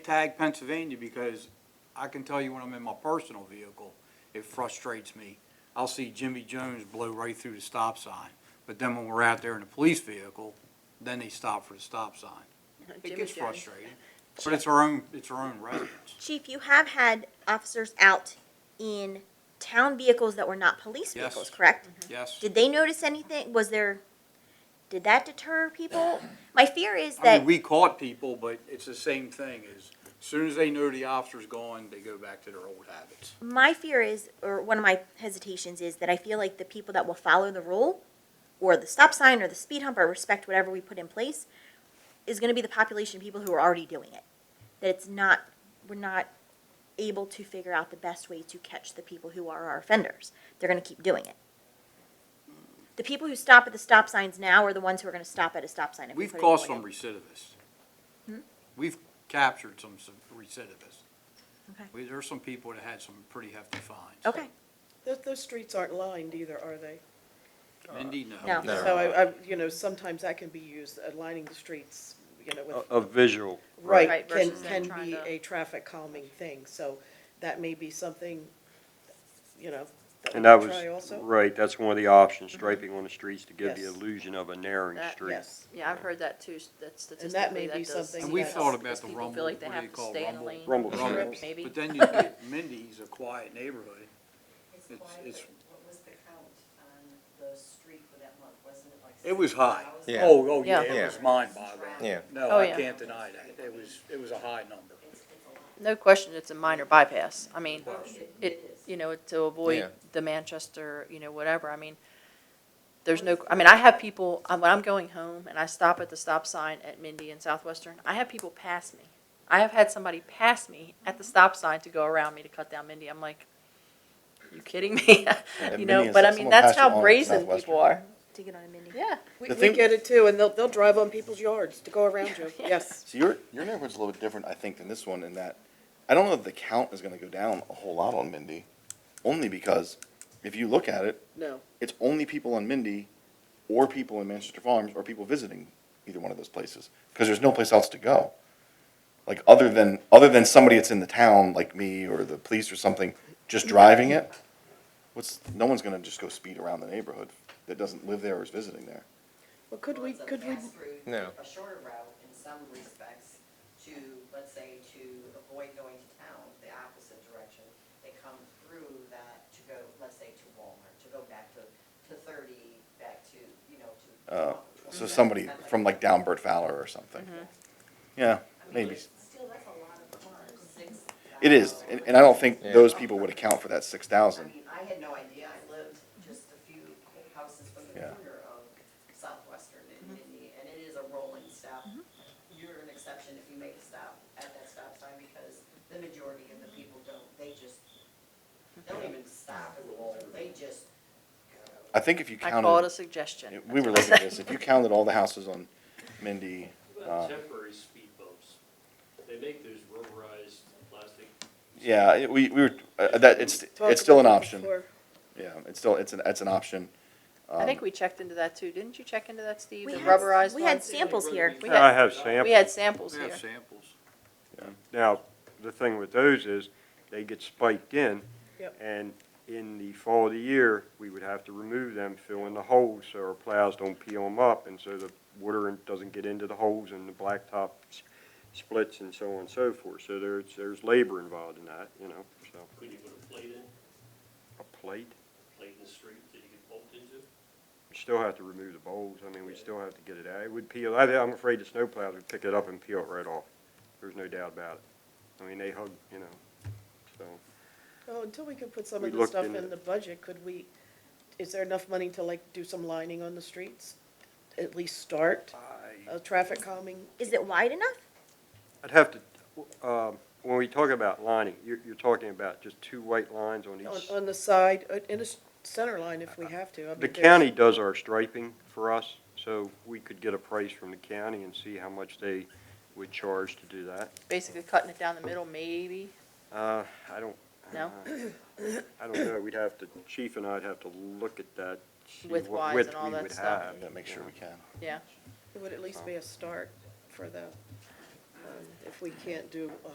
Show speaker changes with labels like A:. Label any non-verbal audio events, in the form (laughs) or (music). A: tag Pennsylvania because I can tell you when I'm in my personal vehicle, it frustrates me. I'll see Jimmy Jones blow right through the stop sign, but then when we're out there in a police vehicle, then they stop for the stop sign. It
B: Uh,
C: Jimmy
A: gets
C: Jones.
A: frustrating, but it's our own, it's our own
C: (laughs)
A: residents.
B: Chief, you have had officers out in town vehicles that were not
A: Yes.
B: police
A: Mm-hmm.
B: vehicles, correct?
A: Yes,
B: Did they notice anything? Was there, did that deter people?
A: (clears throat)
B: My fear is
A: I
B: that,
A: mean, we caught people, but it's the same thing as, soon as they know the officer's gone, they go back to their old habits.
B: my fear is, or one of my hesitations is that I feel like the people that will follow the rule or the stop sign or the speed hump or respect whatever we put in place is gonna be the population of people who are already doing it. That it's not, we're not able to figure out the best way to catch the people who are our offenders. They're gonna keep doing it. The people who stop at the stop signs now are the ones who are gonna stop at a stop sign if we
A: We've
B: put a
A: caused
D: oh,
B: warning.
A: some recidivists.
D: Hmm?
A: We've captured some some recidivists.
B: Okay.
A: We- There's some people that had some pretty hefty fines.
B: Okay,
C: Those, those streets aren't lined either, are they?
A: Indeed, no.
B: No.
E: No.
C: So I, I, you know, sometimes that can be used, uh, lining the streets, you know,
E: A,
C: with,
E: a visual.
C: right,
D: Right,
C: can,
D: versus them
C: can
D: trying
C: be
D: to-
C: a traffic calming thing, so that may be something, you know, that we
E: And that
C: could
E: was,
C: try also.
E: right, that's one of the options, striping on the streets to give the
C: Yes.
E: illusion of a narrowing
D: That-
E: street.
C: Yes,
D: Yeah, I've heard that too, that statistically
C: may
D: that
C: be
D: does-
C: something
A: And we
C: Yes.
A: thought about
D: because
A: the
D: people
A: rumble,
D: feel like
A: what
D: they
A: do
D: have
A: they
D: to
A: call
D: stay in a
A: rumble?
D: lane.
E: Rumble
A: Rumble.
E: strips.
D: Maybe.
A: But then you get Mindy's, a quiet neighborhood.
F: It's
A: It's-
F: why,
A: it's-
F: but what was the count on the street for that month, wasn't it like?
A: It was high.
F: 6,000?
G: Yeah.
A: Oh, oh, yeah,
D: Yeah.
A: it
G: Yeah.
A: was mind-boggling.
G: Yeah.
A: No,
D: Oh,
A: I
D: yeah.
A: can't deny that. It was, it was a high number.
F: It's- it's a lot.
D: No question, it's a minor bypass. I mean, it, you know, to
G: Yeah.
D: avoid the Manchester, you know, whatever, I mean, there's no, I mean, I have people, I- when I'm going home and I stop at the stop sign at Mindy and Southwestern, I have people pass me. I have had somebody pass me at the stop sign to go around me to cut down Mindy. I'm like, you kidding me? (laughs) You
G: Mindy
D: know,
G: and
D: but I mean,
G: South- someone
D: that's
G: passed you on
D: how
G: at
D: brazen
G: Southwestern.
D: people are.
B: to get on a mini.
D: Yeah.
C: we,
G: The
C: we
G: thing-
C: get it too, and they'll, they'll drive on people's yards to go around you, (laughs) yes.
G: So your, your neighborhood's a little bit different, I think, than this one in that, I don't know if the count is gonna go down a whole lot on Mindy, only because if you look at it,
C: No,
G: it's only people on Mindy or people in Manchester Farms or people visiting either one of those places, because there's no place else to go. Like, other than, other than somebody that's in the town, like me or the police or something, just driving it, what's, no one's gonna just go speed around the neighborhood that doesn't live there or is visiting there.
C: well, could we,
F: Well,
C: could we,
F: It's a fast route,
G: No.
F: a shorter route in some respects to, let's say, to avoid going to town, the opposite direction. They come through that to go, let's say, to Walmart, to go back to, to thirty, back to, you know, to.
G: Uh, so somebody from like down Bert Fowler or something. Yeah,
F: I mean,
G: maybe.
F: Still, that's a lot of cars, six.
G: It is, and, and I don't think those people would account for that six
F: I
G: thousand.
F: mean, I had no idea, I lived just a few houses from the
G: Yeah.
F: corner of Southwestern and Indy, and it is a rolling stop. You're an exception if you make a stop at that stop sign, because the majority of the people don't, they just, they don't even stop and roll, they just go.
G: I think if you
D: I call it a
G: counted,
D: suggestion.
G: we were looking at this, if you counted all the houses on Mindy, uh,
H: Temporary speed bumps. They make those rubberized plastic.
G: yeah, it- we, we were, uh, that, it's,
C: talk
G: it's still an
C: about that
G: option.
C: before.
G: Yeah, it's still, it's an, it's an option.
D: I think we checked into that too. Didn't you check into that, Steve?
B: We
D: The
B: had-
D: rubberized
B: we had
D: ones?
B: sample- Samples here.
D: We
E: I
D: had-
E: have
D: We
E: samples.
D: had samples
A: We
D: here.
A: have samples.
E: Now, the thing with those is, they get spiked in.
C: Yep.
E: And in the fall of the year, we would have to remove them, fill in the holes, so our plows don't peel them up, and so the water doesn't get into the holes and the blacktop s- splits and so on and so forth. So there's, there's labor involved in that, you know, so,
H: Could you put a plate in,
E: a plate.
H: plate in the street that you could bolt into?
E: We still have to remove the bowls, I mean, we still have to get it out, it would peel, I, I'm afraid the snowplows would pick it up and peel it right off, there's no doubt about it. I mean, they hug, you know, so,
C: Well, Oh, until we could put some
E: We
C: of the
E: looked
C: stuff
E: into
C: in the budget, could we, is there enough money to like do some lining on the streets? At least start a traffic calming?
B: Is it wide enough?
E: I'd have to, um, when we talk about lining, you're, you're talking about just two white lines on
C: On,
E: each.
C: on the side, uh, in the s- center line if we have to. I mean,
E: The
C: there's-
E: county does our striping for us, so we could get a price from the county and see how much they would charge to do that.
D: Basically cutting it down the middle, maybe.
E: Uh, I don't.
D: No?
E: uh, I don't know, we'd have to, chief and I'd have to look at that. see
D: With
E: what
D: wise
E: width
D: and all
E: we
D: that
E: would
D: stuff.
E: have,
G: I'm gonna make sure we can.
D: Yeah.
C: It would at least be a start for the, um, if we can't do a